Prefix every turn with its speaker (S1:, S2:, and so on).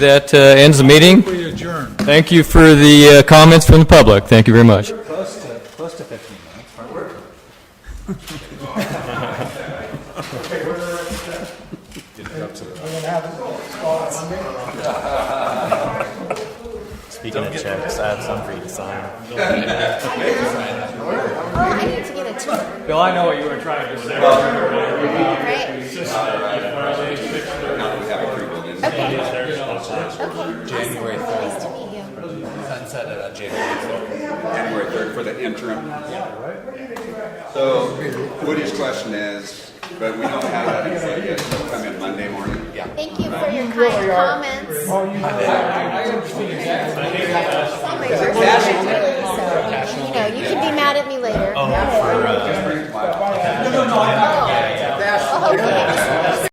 S1: That uh, ends the meeting.
S2: We adjourn.
S1: Thank you for the uh, comments from the public. Thank you very much.
S2: Close to, close to 15 minutes. Hard work.
S3: Speaking of checks, I have some for you to sign.
S4: Oh, I need to get a tour,
S1: Bill, I know what you were trying to say.
S4: right? Okay. Okay. January Nice to meet you.
S5: Sunset it on January
S6: January 3rd for the interim. So Woody's question is, but we don't have that info yet, so come in Monday morning. Yeah.
S4: Thank you for your kind comments. Oh, you You know, you can be mad at me later. No, no, no. Oh, okay.